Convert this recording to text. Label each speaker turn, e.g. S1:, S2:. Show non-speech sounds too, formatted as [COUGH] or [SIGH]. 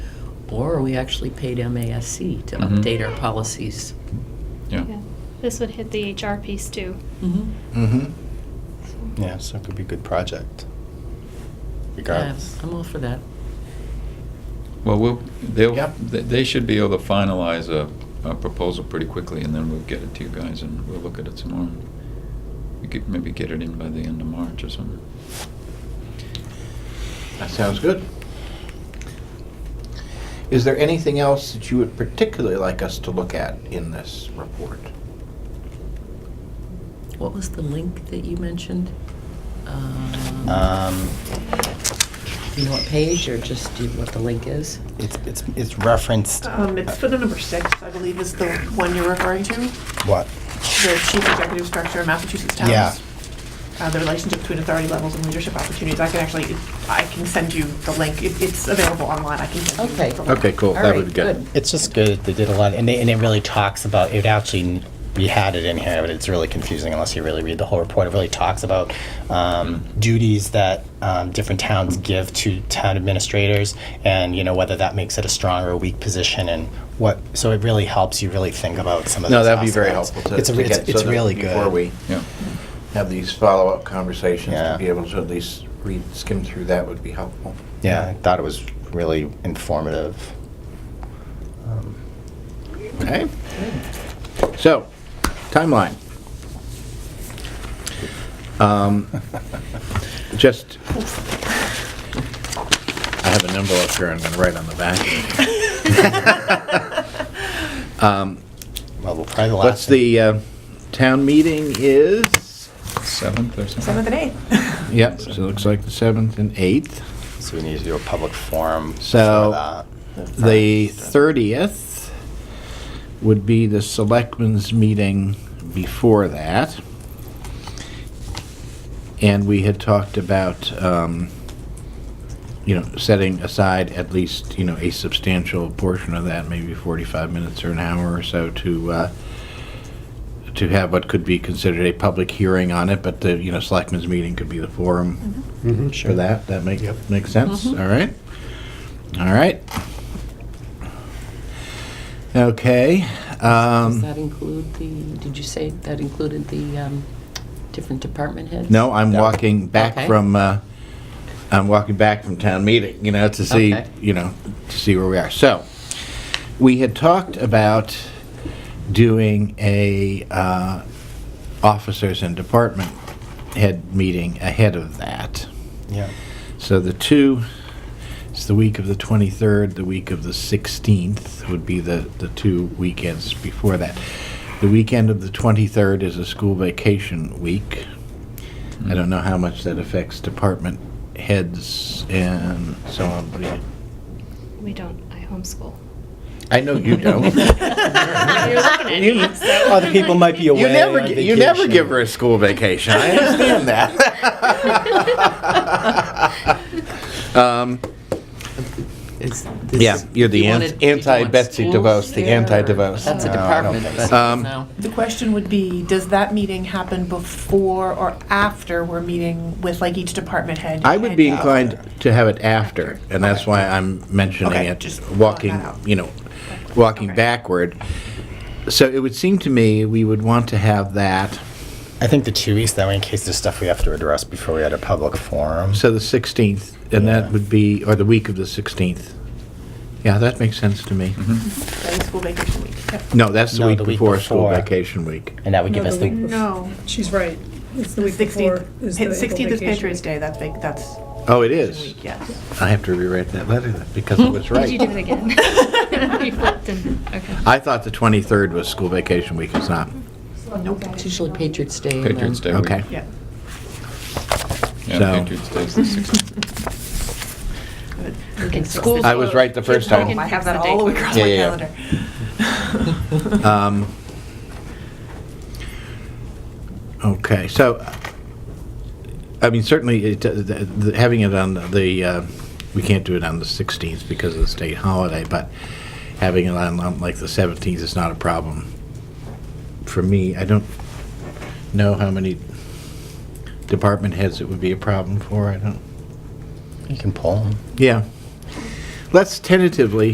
S1: Or we actually paid MASC to
S2: Mhm.
S1: update our policies.
S2: Yeah.
S3: This would hit the HR piece too.
S4: Mm-hmm. Yeah, so it could be a good
S1: Yeah,
S4: project. Regardless.
S1: Uh, I'm all for that.
S2: Well, we'll, they'll,
S4: Yep.
S2: th- they should be able to finalize a, a proposal pretty quickly, and then we'll get it to you guys, and we'll look at it some more. We could maybe get it in by the end of March or something.
S4: That sounds good. Is there anything else that you would particularly like us to look at in this report?
S1: What was the link that you mentioned? Um,
S5: Um,
S1: You know what page, or just do what the link is?
S5: it's, it's, it's referenced, uh,
S6: Um, it's for the number six, I believe, is the one you're referring to, the
S5: what?
S6: chief executive structure of Massachusetts towns.
S5: Yeah.
S6: Uh, the relationship between authority levels and leadership opportunities. I can actually, I can send you the link. It, it's available online. I can send you.
S1: Okay.
S6: the link.
S4: Okay, cool.
S1: All
S4: That
S1: right,
S4: would be good.
S5: It's just good, they did a lot, and it, and it really talks about, it actually, we had it in here, but it's really confusing unless you really read the whole report. It really talks about um, duties that um, different towns give to town administrators, and, you know, whether that makes it a strong or a weak position, and what, so it really helps you really think about some of those
S4: No, that'd be very
S5: aspects.
S4: helpful to
S5: It's a-
S4: to
S5: it's-
S4: get,
S5: It's
S4: so that
S5: really good.
S4: before we
S2: Yeah.
S4: have these follow-up conversations, to
S5: Yeah.
S4: be able to at least read, skim through that would be helpful.
S5: Yeah, I thought it was really informative. Um,
S4: Okay. So, timeline. Um, [LAUGHS]
S5: [LAUGHS]
S4: Just, I have an envelope here I'm going to write on the back. Um,
S5: Well, we'll probably the last.
S4: What's the, uh, town meeting is,
S2: Seventh or something?
S6: [LAUGHS] Seventh and eighth.
S4: yep, so it looks like the 7th and 8th.
S5: So we need to do a public forum.
S4: So,
S5: for that.
S4: The 30th would be the selectmen's meeting before that. And we had talked about, um, you know, setting aside at least, you know, a substantial portion of that, maybe 45 minutes or an hour or so to, uh, to have what could be considered a public hearing on it, but the, you know, selectmen's meeting could be the forum for that. That make, makes sense, all right? All right. Okay,
S1: Does
S4: um,
S1: that include the, did you say that included the um, different department heads?
S4: no, I'm walking back
S1: Okay.
S4: from, uh, I'm walking back from town meeting, you know, to see,
S1: Okay.
S4: you know, to see where we are. So, we had talked about doing a, uh, officers and department head meeting ahead of that.
S5: Yeah.
S4: So the two, it's the week of the 23rd, the week of the 16th would be the, the two weekends before that. The weekend of the 23rd is a school vacation week. I don't know how much that affects department heads and so on, but yeah.
S3: We don't, I
S4: [LAUGHS]
S3: homeschool.
S4: I know [LAUGHS]
S1: [LAUGHS]
S4: you don't. You-
S5: Other people might be away.
S4: You never,
S5: on
S4: gi- you never
S5: vacation.
S4: give her a school vacation. I understand
S3: [LAUGHS]
S4: that. [LAUGHS] um,
S1: Is this-
S4: yeah, you're the
S1: you
S4: an-
S1: wanted- you want
S4: anti-Betsy
S1: schools
S4: DeVos, the
S1: there, or-
S4: anti-DeVos.
S1: That's a
S5: No, I don't
S1: department,
S5: think
S1: but
S4: so. Um,
S1: no.
S6: The question would be, does that meeting happen before or after we're meeting with like each department head?
S4: I would be
S6: and- uh,
S4: inclined to have it after, and that's why I'm mentioning
S6: Okay,
S4: it,
S6: just
S4: walking,
S6: thought that out.
S4: you know, walking
S6: Okay.
S4: backward. So it would seem to me we would want to have that,
S5: I think the two weeks, that way in case there's stuff we have to address before we had a public forum.
S4: so the 16th, and
S5: Yeah.
S4: that would be, or the week of the 16th. Yeah, that makes sense to me.
S2: Mm-hmm.
S6: During school vacation week. Yep.
S4: No, that's the
S5: No,
S4: week
S5: the week
S4: before school
S5: before.
S4: vacation week.
S5: And that would give
S7: No,
S5: us
S7: the
S5: the.
S7: week-
S6: No,
S7: She's right. It's the
S6: the
S7: week before.
S6: sixteenth,
S7: is the April
S6: sixteenth is
S7: vacation
S6: Patriots
S7: week.
S6: Day. That's big, that's.
S4: Oh, it
S6: vacation
S4: is.
S6: week, Yes.
S4: I have to rewrite that letter then, because
S6: [LAUGHS]
S4: it was
S3: Did you do it
S4: right. [LAUGHS]
S3: again? [LAUGHS] You flipped and, okay.
S4: I thought the 23rd was school vacation week, it's not.
S6: Nope.
S1: It's usually Patriots Day. and
S2: Patriots Day
S1: then-
S2: week.
S4: Okay.
S6: Yeah.
S2: Yeah,
S4: So-
S2: Patriots Day's the sixteenth.
S6: Good.
S3: Okay, school-
S4: I was right the
S3: Kids'
S4: first time.
S3: home.
S6: I have that all the way across
S4: Yeah,
S6: my
S4: yeah, yeah.
S6: calendar.
S4: Um, Okay, so, I mean, certainly, it- the- the- having it on the, uh, we can't do it on the 16th because of the state holiday, but having it on on like the 17th is not a problem for me. I don't know how many department heads it would be a problem for, I don't,
S5: You can pull 'em.
S4: yeah. Let's tentatively